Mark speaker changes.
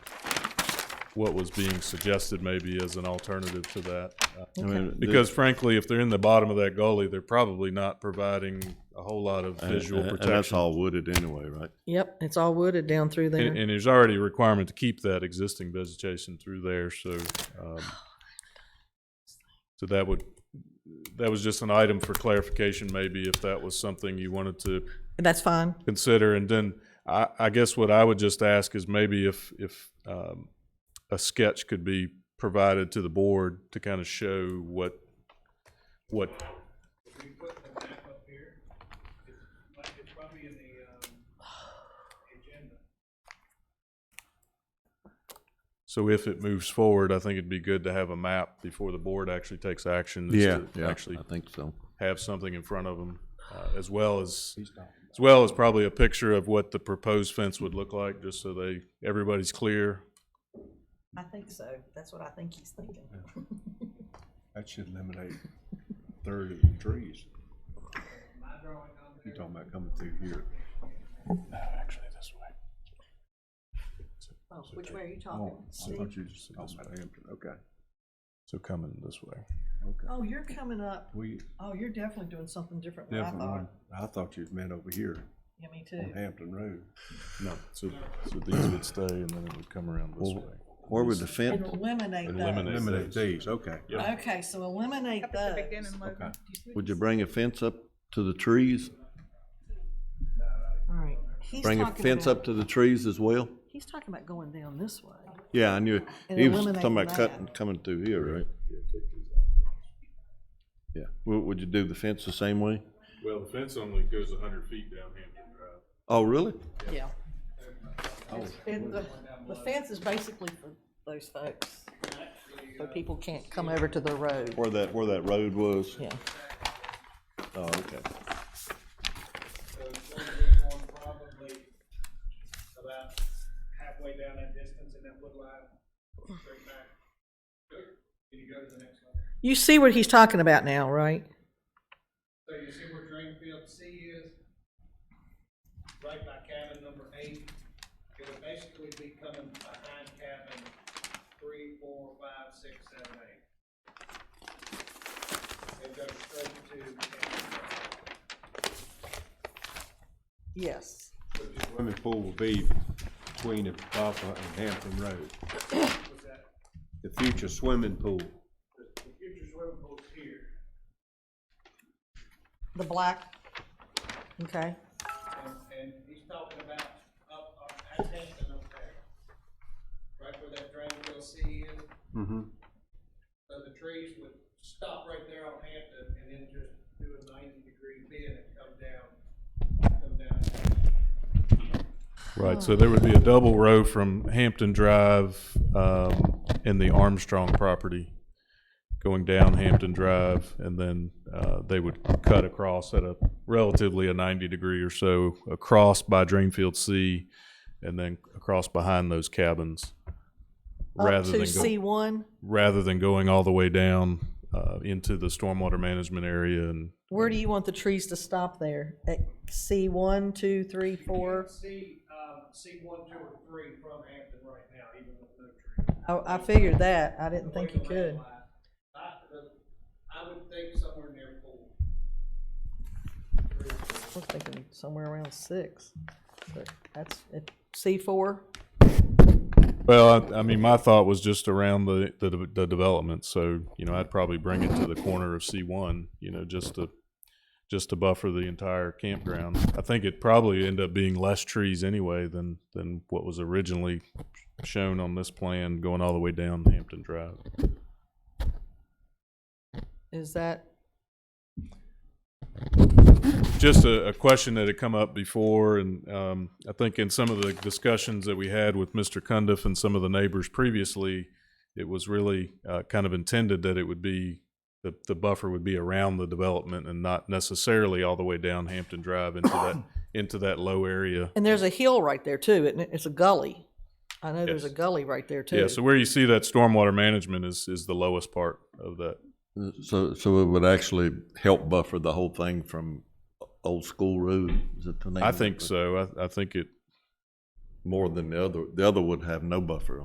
Speaker 1: what was being suggested maybe as an alternative to that. Uh,
Speaker 2: I mean,
Speaker 1: Because frankly, if they're in the bottom of that gully, they're probably not providing a whole lot of
Speaker 2: the- and-
Speaker 1: visual
Speaker 2: and- and that's
Speaker 1: protection.
Speaker 2: all wooded anyway, right?
Speaker 3: Yep, it's all wooded down through
Speaker 1: And,
Speaker 3: there.
Speaker 1: and there's already a requirement to keep that existing vegetation through there, so, um, so that would, that was just an item for clarification, maybe if that was something you wanted to
Speaker 3: That's fine.
Speaker 1: consider. And then I, I guess what I would just ask is maybe if, if, um, a sketch could be provided to the board to kind of show what, what, so if it moves forward, I think it'd be good to have a map before the board actually takes action. is to Actually
Speaker 2: I think so.
Speaker 1: have something in front of them, uh, as well as, as well as probably a picture of what the proposed fence would look like, just so they, everybody's clear.
Speaker 3: I think so. That's what I think he's thinking.
Speaker 4: That should eliminate thirty trees. You're talking about coming through here. No, actually, this way.
Speaker 3: Oh, which way are you
Speaker 4: Oh,
Speaker 3: talking?
Speaker 4: I thought you just said this way. Okay,
Speaker 1: So coming this way.
Speaker 4: okay.
Speaker 3: Oh, you're coming up.
Speaker 4: We
Speaker 3: Oh, you're definitely doing something different than I
Speaker 4: definitely,
Speaker 3: thought.
Speaker 4: I thought you meant over here
Speaker 3: Yeah, me
Speaker 4: on
Speaker 3: too.
Speaker 4: Hampton Road.
Speaker 1: No, so, so these would stay and then it would come around this way.
Speaker 2: Where would the
Speaker 3: And
Speaker 2: fence,
Speaker 3: eliminate
Speaker 1: Eliminate.
Speaker 3: those.
Speaker 4: Eliminate these, okay.
Speaker 3: Okay, so eliminate those.
Speaker 4: Okay.
Speaker 2: would you bring a fence up to the trees?
Speaker 3: All right. He's
Speaker 2: Bring a
Speaker 3: talking
Speaker 2: fence
Speaker 3: about-
Speaker 2: up to the trees as well?
Speaker 3: He's talking about going down this way.
Speaker 2: Yeah, I knew,
Speaker 3: And
Speaker 2: he was
Speaker 3: eliminate
Speaker 2: talking about
Speaker 3: that.
Speaker 2: cutting, coming through here, right? Yeah, would, would you do the fence the same way?
Speaker 1: Well, the fence only goes a hundred feet down Hampton Drive.
Speaker 2: Oh, really?
Speaker 3: Yeah. And the, the fence is basically for those folks, so people can't come over to the road.
Speaker 2: Where that, where that road was?
Speaker 3: Yeah.
Speaker 2: Oh, okay.
Speaker 5: So it's gonna be on probably about halfway down that distance in that wood line, straight back. Can you go to the next one?
Speaker 3: You see what he's talking about now, right?
Speaker 5: So you see where drain field C is? Right by cabin number eight. It would basically be coming behind cabin three, four, five, six, seven, eight. It goes straight to cabin.
Speaker 3: Yes.
Speaker 4: Swimming pool will be between Apapa and Hampton Road. The future swimming pool.
Speaker 5: The future swimming pool's here.
Speaker 3: The black, okay.
Speaker 5: And, and he's talking about up, uh, up, at Hampton up there. Right where that drain field C is,
Speaker 4: Mm-hmm.
Speaker 5: so the trees would stop right there on Hampton and then just do a ninety degree bend and come down, come down.
Speaker 1: Right, so there would be a double row from Hampton Drive, um, and the Armstrong property going down Hampton Drive, and then, uh, they would cut across at a relatively a ninety degree or so, across by Drainfield C, and then across behind those cabins.
Speaker 3: Up
Speaker 1: rather
Speaker 3: to
Speaker 1: than go
Speaker 3: C one,
Speaker 1: Rather than going all the way down, uh, into the stormwater management area and
Speaker 3: where do you want the trees to stop there? At C one, two, three, four?
Speaker 5: See, um, see one, two, or three from Hampton right now, even with no tree.
Speaker 3: I, I figured that. I didn't think you
Speaker 5: The way the
Speaker 3: could.
Speaker 5: red line, I, I would think somewhere near four. Three or four.
Speaker 3: I was thinking somewhere around six, but that's, at C four?
Speaker 1: Well, I, I mean, my thought was just around the, the, de- the development, so, you know, I'd probably bring it to the corner of C one, you know, just to, just to buffer the entire campground. I think it'd probably end up being less trees anyway than, than what was originally shown on this plan, going all the way down Hampton Drive.
Speaker 3: Is that,
Speaker 1: Just a, a question that had come up before, and um, I think in some of the discussions that we had with Mr. Cundiff and some of the neighbors previously, it was really uh, kind of intended that it would be, the, the buffer would be around the development and not necessarily all the way down Hampton Drive into that, into that low area.
Speaker 3: and there's a hill right there too, isn't it? It's a gully. I know there's a
Speaker 1: Yes.
Speaker 3: gully right there too.
Speaker 1: Yeah, so where you see that stormwater management is, is the lowest part of that.
Speaker 2: So, so it would actually help buffer the whole thing from Old School Road, is it the name?
Speaker 1: I
Speaker 2: of it?
Speaker 1: think so. I, I think it,
Speaker 2: More than the other, the other would have no buffer